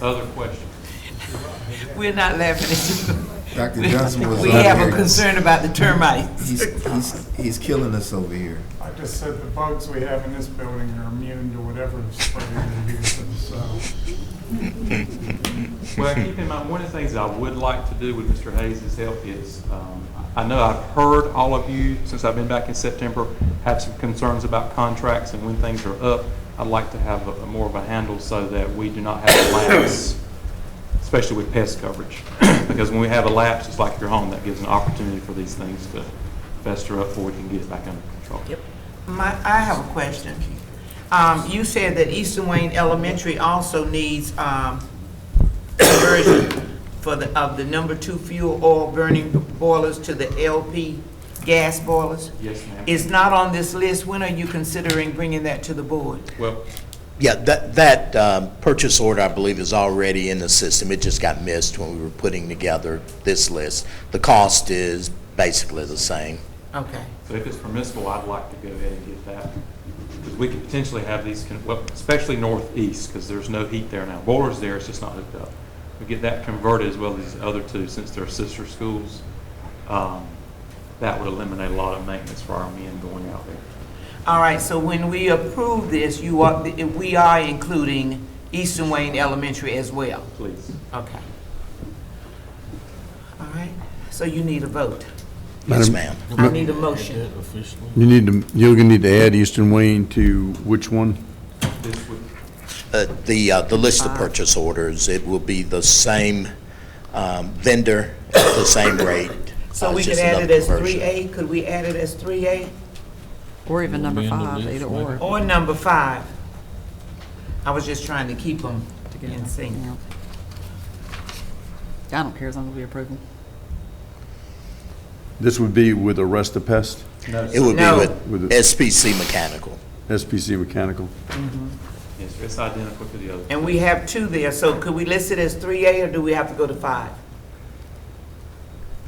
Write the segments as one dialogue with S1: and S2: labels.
S1: Other questions?
S2: We're not laughing at you.
S3: Dr. Johnson was
S2: We
S3: up
S2: have a
S3: here.
S2: concern about the termites.
S3: He's, he's, he's killing us over here.
S4: I just said the bugs we have in this building are immune to whatever spray they're using, so.
S1: Well, keep in mind, one of the things I would like to do with Mr. Hayes' help is, um, I know I've heard all of you, since I've been back in September, have some concerns about contracts and when things are up. I'd like to have a- more of a handle so that we do not have a lapse, especially with pest coverage. Because when we have a lapse, it's like your home, that gives an opportunity for these things to fester up before we can get it back under control.
S2: My, I have a question. Um, you said that Eastern Wayne Elementary also needs, um, conversion for the, of the number two fuel oil burning boilers to the LP gas boilers?
S1: Yes, ma'am.
S2: It's not on this list. When are you considering bringing that to the board?
S1: Well,
S5: Yeah, that, that um, purchase order, I believe, is already in the system. It just got missed when we were putting together this list. The cost is basically the same.
S2: Okay.
S1: So if it's permissible, I'd like to go ahead and get that, because we could potentially have these, con- well, especially northeast, because there's no heat there now. Boiler's there, it's just not hooked up. We get that converted as well as these other two, since they're sister schools. Um, That would eliminate a lot of maintenance for our men going out there.
S2: All right, so when we approve this, you are, we are including Eastern Wayne Elementary as well?
S1: Please.
S2: Okay. All right, so you need a vote.
S5: Yes,
S6: Madam-
S5: ma'am.
S2: I need a motion.
S6: You need to, you're gonna need to add Eastern Wayne to which one?
S1: This would,
S5: Uh, The, uh, the list of purchase orders, it will be the same um, vendor, at the same rate.
S2: So
S5: Uh,
S2: we
S5: it's
S2: could
S5: just
S2: add it
S5: another
S2: as
S5: conversion.
S2: three A, could we add it as three A
S7: Or even number five, either or.
S2: or number five? I was just trying to keep them in sync.
S7: Yeah. I don't care as long as we approve them.
S6: This would be with Arrest the Pest,
S1: no,
S5: It would
S2: No.
S5: be
S6: With
S5: with
S6: the-
S5: SPC Mechanical.
S6: SPC Mechanical.
S1: yes, sir, it's identical to the other.
S2: And we have two there, so could we list it as three A or do we have to go to five?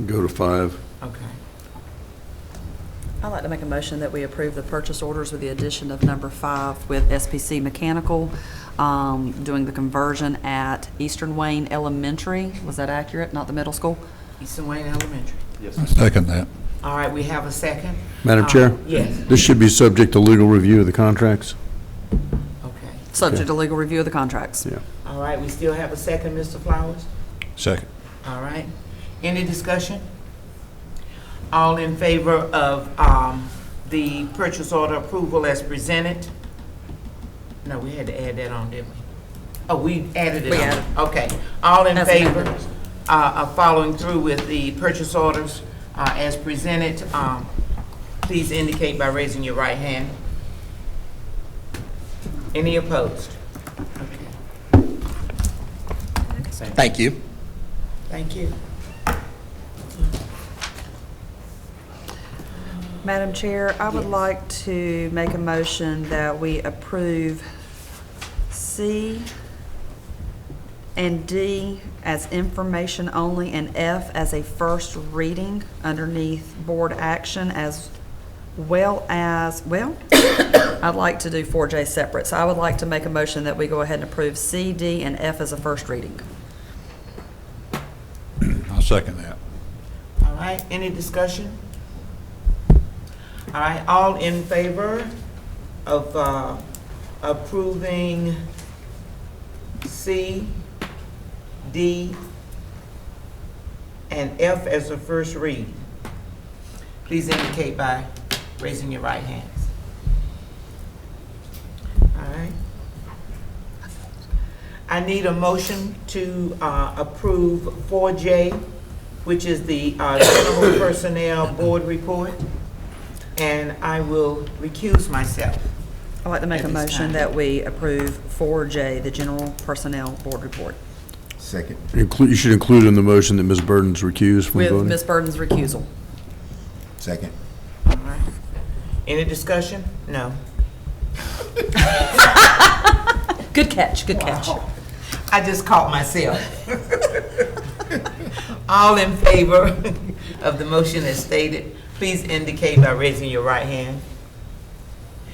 S6: Go to five.
S2: Okay.
S7: I'd like to make a motion that we approve the purchase orders with the addition of number five with SPC Mechanical, um, doing the conversion at Eastern Wayne Elementary. Was that accurate? Not the middle school?
S2: Eastern Wayne Elementary.
S1: Yes,
S8: I
S1: ma'am.
S8: second that.
S2: All right, we have a second?
S6: Madam Chair?
S2: Uh, Yes,
S6: This should be subject to legal review of the contracts?
S2: okay.
S7: Subject to legal review of the contracts.
S6: Yeah.
S2: All right, we still have a second, Mr. Flowers?
S8: Second.
S2: All right. Any discussion? All in favor of um, the purchase order approval as presented? No, we had to add that on, didn't we? Oh, we added it
S7: We
S2: on.
S7: added.
S2: Okay. All in
S7: As
S2: favor
S7: amended.
S2: uh, of following through with the purchase orders uh, as presented, um, please indicate by raising your right hand. Any opposed? Okay.
S5: Thank you.
S2: Thank you.
S7: Madam Chair, I would like to make a motion that we approve C and D as information only and F as a first reading underneath board action as well as, well, I'd like to do 4J separate. So I would like to make a motion that we go ahead and approve C, D, and F as a first reading.
S8: I second that.
S2: All right, any discussion? All right, all in favor of uh, approving C, D, and F as a first read? Please indicate by raising your right hands. All right. I need a motion to uh, approve 4J, which is the uh, General Personnel Board Report, and I will recuse myself.
S7: I'd like to make a
S2: At this time.
S7: motion that we approve 4J, the General Personnel Board Report,
S3: Second.
S6: Inclu- You should include in the motion that Ms. Burden's recused from
S7: with
S6: voting.
S7: Ms. Burden's recusal.
S3: Second.
S2: All right. Any discussion? No.
S7: Good catch, good catch.
S2: I just caught myself. All in favor of the motion as stated, please indicate by raising your right hand.